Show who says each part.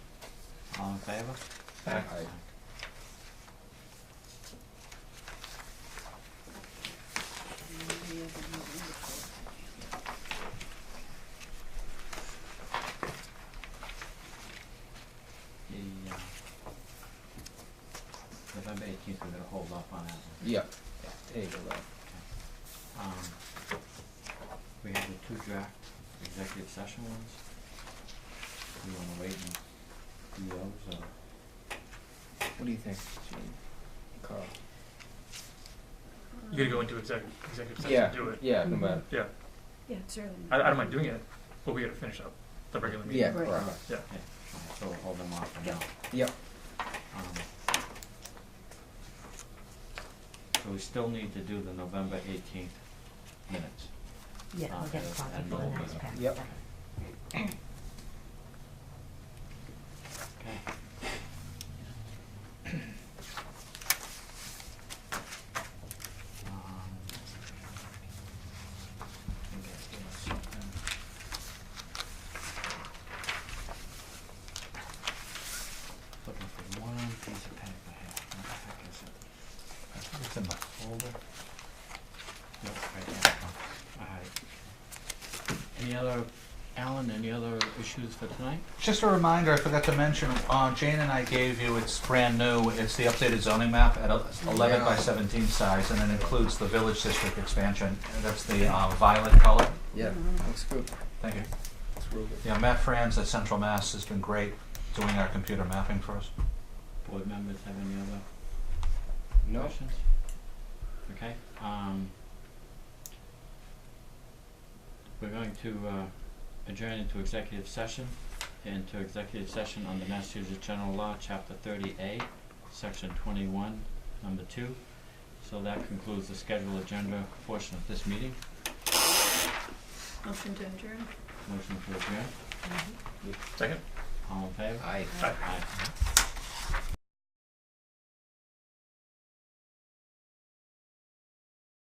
Speaker 1: All in favor?
Speaker 2: Aye.
Speaker 1: The, uh, November eighteenth, we're gonna hold off on that one.
Speaker 2: Yeah, yeah, table that.
Speaker 1: Um, we have the two draft executive session ones. We wanna wait and do those, or?
Speaker 2: What do you think, Gene? Carl?
Speaker 3: You gotta go into exec- executive session
Speaker 2: Yeah,
Speaker 3: to do it.
Speaker 2: yeah, no
Speaker 4: Mhm.
Speaker 2: matter.
Speaker 3: Yeah,
Speaker 4: Yeah, it's early.
Speaker 3: I, I don't mind doing it, but we gotta finish up the regular meeting.
Speaker 2: Yeah,
Speaker 4: Right.
Speaker 2: right.
Speaker 1: Yeah, alright, so we'll hold them off for now.
Speaker 2: Yep.
Speaker 1: Um, So we still need to do the November eighteenth minutes.
Speaker 5: Yeah,
Speaker 1: Uh,
Speaker 5: I'll get
Speaker 1: and-
Speaker 5: a copy
Speaker 1: and Um,
Speaker 5: for the
Speaker 1: we'll-
Speaker 5: next pack.
Speaker 2: Yep.
Speaker 1: Okay. Um, I guess there was something. Looking for one piece of paper here, what the heck is it? It's in my folder. No, right there, all right. Any other, Alan, any other issues for tonight?
Speaker 6: Just a reminder, I forgot to mention, uh, Jane and I gave you, it's brand new, it's the updated zoning map at a- eleven by
Speaker 2: Yeah.
Speaker 6: seventeen size, and it includes the village district expansion, and that's the, uh, violet color.
Speaker 2: Yeah, looks good.
Speaker 6: Thank you.
Speaker 2: Looks real good.
Speaker 6: Yeah, Matt Franz at Central Mass has been great doing our computer mapping for us.
Speaker 1: Board members have any other
Speaker 2: No?
Speaker 1: questions? Okay, um. We're going to uh adjourn into executive session, into executive session under Massachusetts General Law, Chapter thirty A, Section twenty-one, number two. So that concludes the scheduled agenda portion of this meeting,
Speaker 4: Motion to adjourn?
Speaker 1: motion to adjourn,
Speaker 3: Second?
Speaker 1: all in favor?
Speaker 2: Aye.
Speaker 3: Aye.
Speaker 1: Aye.